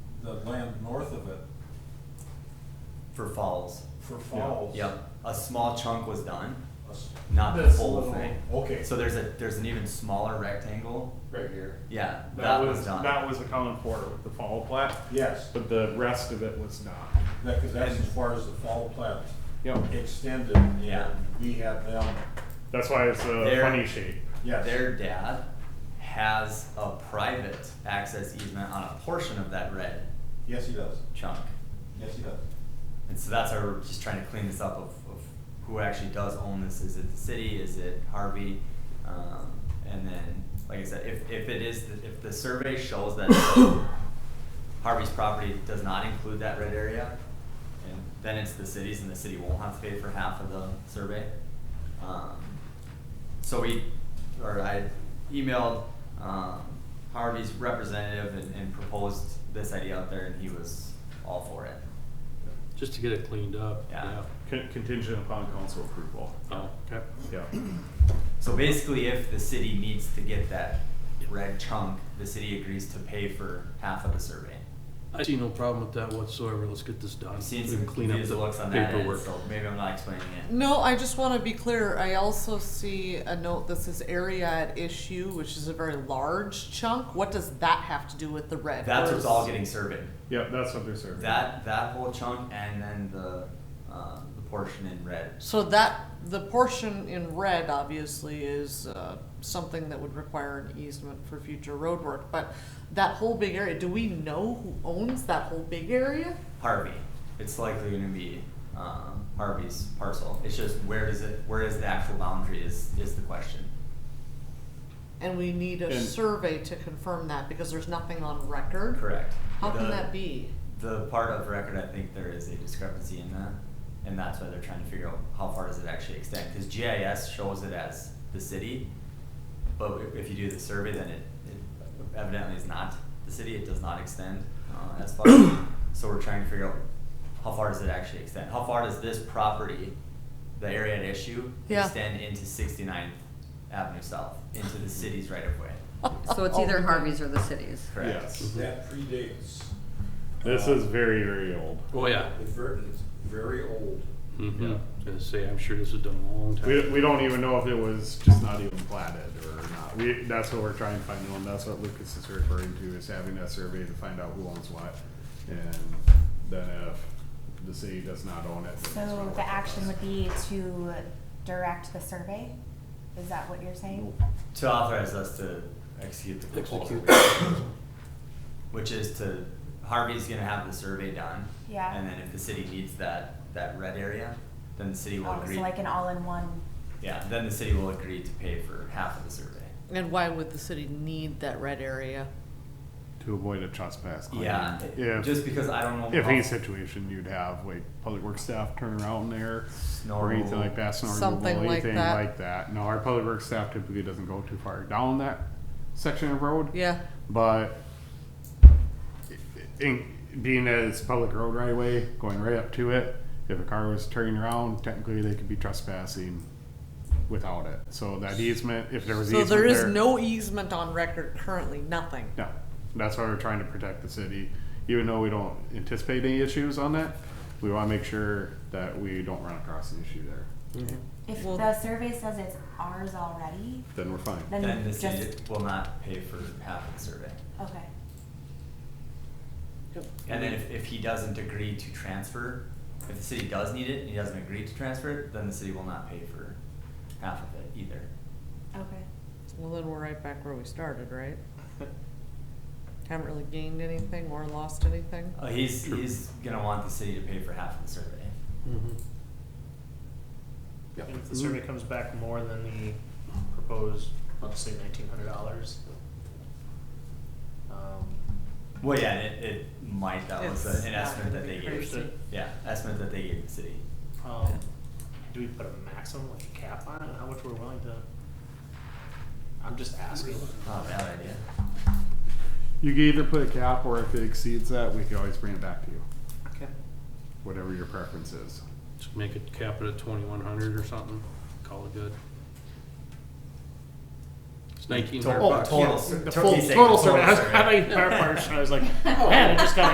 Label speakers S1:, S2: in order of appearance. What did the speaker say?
S1: the land north of it
S2: for falls.
S1: for falls.
S2: Yep, a small chunk was done,
S1: Us-
S2: not the
S3: This
S2: whole
S3: little-
S2: thing.
S1: Okay.
S2: So there's a, there's an even smaller rectangle.
S3: right here.
S2: Yeah,
S4: That,
S2: that
S4: was,
S2: was done.
S4: that was accounted for with the fall plat,
S1: Yes,
S4: but the rest of it was not.
S1: that, cause that's as far as the fall plat
S4: Yep.
S1: extended and
S2: Yeah.
S1: we had them,
S4: That's why it's a
S2: There-
S4: funny shape.
S1: yes.
S2: Their dad has a private access easement on a portion of that red
S1: Yes, he does.
S2: chunk.
S1: Yes, he does.
S2: And so that's why we're just trying to clean this up of, of who actually does own this. Is it the city? Is it Harvey? Um, and then, like I said, if, if it is, the- if the survey shows that Harvey's property does not include that red area, and then it's the city's and the city won't have to pay for half of the survey. Um, so we, or I emailed um, Harvey's representative and, and proposed this idea out there, and he was all for it.
S5: Just to get it cleaned up.
S2: Yeah.
S4: Con- Contingent upon council approval.
S2: Oh,
S5: Yeah. Okay.
S4: Yeah.
S2: So basically, if the city needs to get that red chunk, the city agrees to pay for half of the survey.
S5: I see no problem with that whatsoever. Let's get this done.
S2: I'm seeing
S5: We
S2: some
S5: can clean up
S2: confused
S5: the
S2: looks on that end,
S5: paperwork.
S2: so maybe I'm not explaining it.
S6: No, I just want to be clear. I also see a note that says area at issue, which is a very large chunk. What does that have to do with the red?
S2: That's what's
S6: Where's-
S2: all getting surveyed.
S4: Yeah, that's what they're serving.
S2: That, that whole chunk and then the, uh, the portion in red.
S6: So that, the portion in red obviously is uh, something that would require an easement for future road work. But that whole big area, do we know who owns that whole big area?
S2: Harvey. It's likely going to be um, Harvey's parcel. It's just where does it? Where is the actual boundary? Is is the question?
S6: And we need a
S4: And-
S6: survey to confirm that because there's nothing on record.
S2: Correct.
S6: How can
S2: The-
S6: that be?
S2: The part of record, I think there is a discrepancy in that, and that's why they're trying to figure out how far does it actually extend. Because GIS shows it as the city, but i- if you do the survey, then it, it evidently is not the city. It does not extend uh, as far. so we're trying to figure out how far does it actually extend. How far does this property, the area at issue,
S6: Yeah.
S2: extend into 69th Avenue South into the city's right of way?
S7: So
S6: Oh,
S7: it's either Harvey's or the city's.
S2: Correct. Mm-hmm.
S1: That
S4: Yes.
S1: predates.
S4: This
S1: uh,
S4: is very, very old.
S5: Oh, yeah.
S1: It's ver- it's very old.
S5: Mm-hmm.
S4: Yeah.
S5: Gonna say, I'm sure this was done a long time.
S4: We, we don't even know if it was just not even platted or not. We, that's what we're trying to find out, and that's what Lucas is referring to, is having that survey to find out who owns what. And then if the city does not own it. then it's
S8: So
S4: relevant
S8: the
S4: to
S8: action
S4: us.
S8: would be to direct the survey? Is that what you're saying?
S2: to authorize us to execute the proposal. Which is to, Harvey's gonna have the survey done.
S8: Yeah.
S2: And then if the city needs that, that red area, then the city will
S8: Oh,
S2: agree.
S8: so like an all-in-one,
S2: Yeah, then the city will agree to pay for half of the survey.
S6: And why would the city need that red area?
S4: To avoid a trespass claim.
S2: Yeah,
S4: If-
S2: just because I don't know.
S4: If
S2: how-
S4: any situation, you'd have like public works staff turn around there or
S2: Snow
S4: anything like that, snow
S6: Something
S4: removal,
S6: like
S4: anything
S6: that.
S4: like that. No, our public works staff typically doesn't go too far down that section of road.
S6: Yeah.
S4: But in, being as public road right away, going right up to it, if a car was turning around, technically they could be trespassing without it. So that easement, if there was
S6: So
S4: easement
S6: there is
S4: there-
S6: no easement on record currently, nothing.
S4: no, that's why we're trying to protect the city. Even though we don't anticipate any issues on that, we want to make sure that we don't run across an issue there.
S8: if
S6: Well-
S8: the survey says it's ours already,
S4: Then we're fine.
S2: Then
S8: then
S2: the
S8: just,
S2: city
S8: okay.
S2: will not pay for half of the survey. And then if, if he doesn't agree to transfer, if the city does need it and he doesn't agree to transfer it, then the city will not pay for half of it either.
S8: Okay.
S6: Well, then we're right back where we started, right? Haven't really gained anything or lost anything.
S2: Uh, he's, he's gonna want the city to pay for half of the survey.
S4: Mm-hmm.
S5: Mhm.
S4: Yep.
S9: And if the survey comes back more than the proposed, let's say nineteen hundred dollars. um,
S2: Well, yeah, it, it might, that was
S6: It's
S2: a- an
S6: not
S2: estimate
S6: gonna
S2: that
S6: be
S2: they gave,
S6: crazy.
S2: yeah, estimate that they gave the city.
S6: Yeah.
S9: um, Do we put a maximum, like a cap on it, on how much we're willing to? I'm just asking.
S2: Not a bad idea.
S4: You can either put a cap, or if it exceeds that, we can always bring it back to you,
S9: Okay.
S4: whatever your preference is.
S5: Just make it cap it at twenty-one hundred or something. Call it good. It's nineteen hundred
S2: Oh,
S5: bucks.
S2: total, sur-
S9: The
S2: to-
S9: full-
S2: he's saying
S9: total
S2: total
S9: survey, I was, I
S2: survey.
S9: thought you meant our portion, I was like, man, I just got